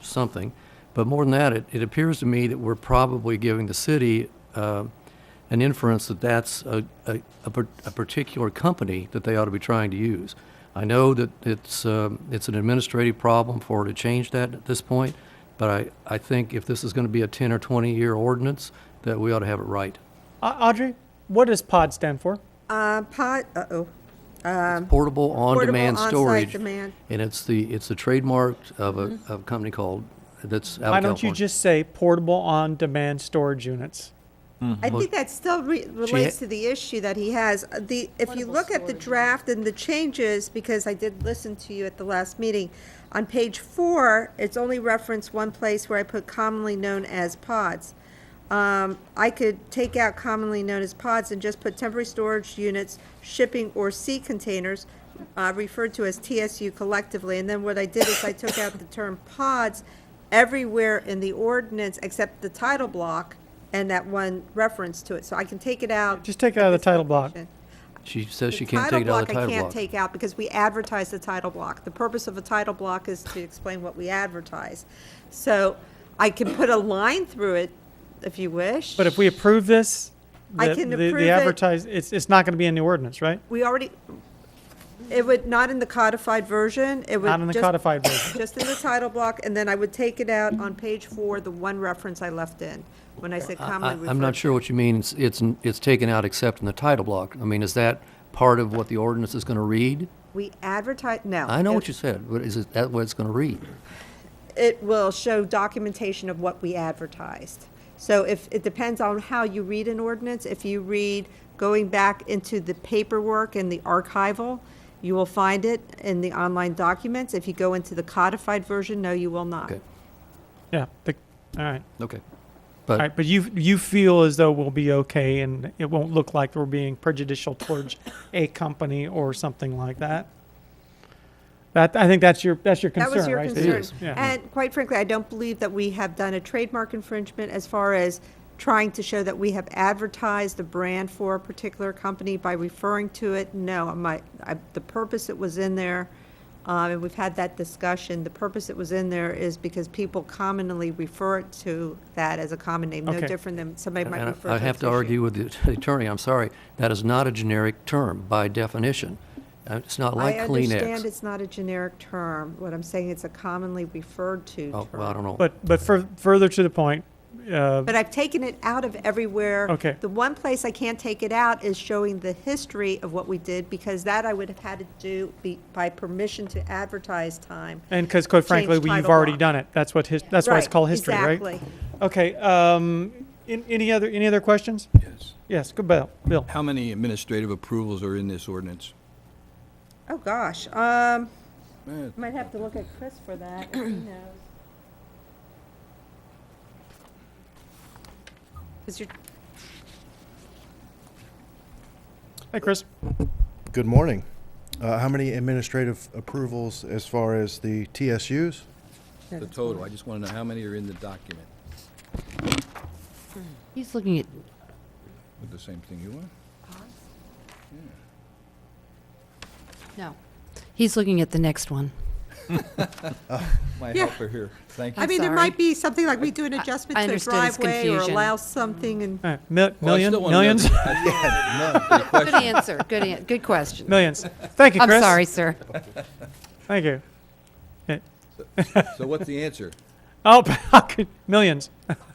something. But more than that, it, it appears to me that we're probably giving the city uh, an inference that that's a, a, a par- a particular company that they ought to be trying to use. I know that it's, um, it's an administrative problem for her to change that at this point, but I, I think if this is going to be a 10 or 20-year ordinance, that we ought to have it right. Au- Audrey, what does POD stand for? Uh, pot, uh-oh, It's portable on-demand Um, on-site storage. demand. Mm-hmm. And it's the, it's the trademark of a, of a company called, that's out Why of don't you California. just say portable on demand storage units? I think that still re- relates to the issue that he has. Uh, The, if you look at the draft and the changes, because I did listen to you at the last meeting, on page four, it's only referenced one place where I put commonly known as pods. Um, I could take out commonly known as pods and just put temporary storage units, shipping or sea containers, uh, referred to as TSU collectively. And then what I did is I took out the term pods everywhere in the ordinance except the title block and that one reference to it. So I can take it out. Just take it out of the title block. She says she The can't title take it out of the I title can't block. take out because we advertise the title block. The purpose of a title block is to explain what we advertise. So I can put a line through it if you wish. But if we approve this, I the, can the, approve it. the advertise, it's, it's not going to be in the ordinance, right? We already, it would, not in the codified version, it would. Not in the just- codified version. Just in the title block, and then I would take it out on page four, the one reference I left in, when I said commonly referred. I- I'm not sure what you mean, it's- it's, it's taken out except in the title block. I mean, is that part of what the ordinance is going to read? We advertise, no. I know It- what you said, but is it that what it's going to read? It will show documentation of what we advertised. So if, it depends on how you read an ordinance. If you read going back into the paperwork and the archival, you will find it in the online documents. If you go into the codified version, no, you will not. Okay. Yeah. The, all right. Okay. All But right. But you you feel as though we'll be okay, and it won't look like we're being prejudicial towards a company or something like that. That I think that's your that's your concern, That was your right? concern. is, yeah. And quite frankly, I don't believe that we have done a trademark infringement as far as trying to show that we have advertised the brand for a particular company by referring to it. No, my, I, the purpose it was in there, um, and we've had that discussion, the purpose it was in there is because people commonly refer it to that as a common name, no Okay. different than somebody might and refer to I have to argue with the attorney, I'm sorry, that is not a generic term by definition. Uh, It's not like I understand Kleenex. it's not a generic term. What I'm saying, it's a commonly referred to Oh, term. well, I don't know. But but fur further to the point, uh, But I've taken it out of everywhere. Okay. The one place I can't take it out is showing the history of what we did, because that I would have had to do be- by permission to advertise time. and because quite frankly, Change we, you've title already block. done it. That's what his, that's why it's Right, called history, right? Exactly. Okay, um, in, any other, any other questions? Yes. Yes, good, Bill, Bill. How many administrative approvals are in this ordinance? Oh, gosh. Um, Eh, might have to look at Chris for that. He knows. Is your, Hey, Chris. Good morning. Uh, How many administrative approvals as far as the TSUs? The total, I just want to know how many are in the document He's looking at, with the same thing you want? no, he's looking at the next one. My Yeah. helper here, thank you. Oh, I mean, there sorry. might be something like we do an adjustment I to a understood his driveway or confusion. allow something and. All right, mil- Well, I million, still wanna know the- millions, I still wanna know the Good question. answer, good, an- good question. millions. Thank you, I'm Chris. sorry, sir. Thank you. Okay. So what's the answer? Oh, I could- millions.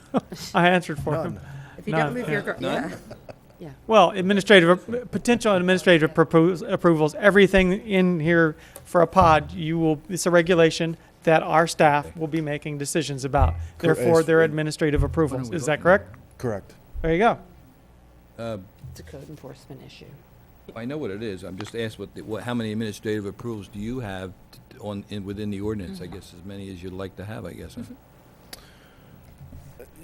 I answered for him. If you don't don't No, move move your your, yeah. yeah. Yeah. Well, administrative, potential administrative propos- approvals, everything in here for a pod, you will, it's a regulation that our staff will be making decisions about. Cor- Therefore, as- they're administrative approvals. we Is that voting correct? Correct. There you go. It's a code enforcement issue. I know what it is, I'm just asked what, the- what, how many administrative approvals do you have t- on, in, within the ordinance? I Mm-hmm. guess as many as you'd like to have, I guess, huh?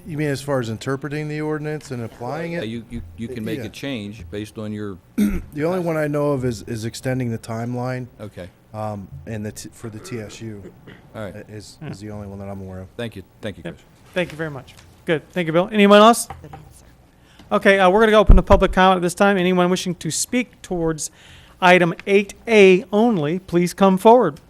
You mean as far as interpreting the ordinance and applying Yeah, it? You, you, you can make Yeah. a change based on your, The only one I know of is, is extending the timeline okay, um, and the, t- for the TSU all uh, right, is, is the only one that I'm aware of. thank you, thank you, Yep. Chris. Thank you very much. Good. Thank you, Bill. Anyone else? Okay, uh, we're going to open the public comment at this time. Anyone wishing to speak towards item 8A only, please come forward.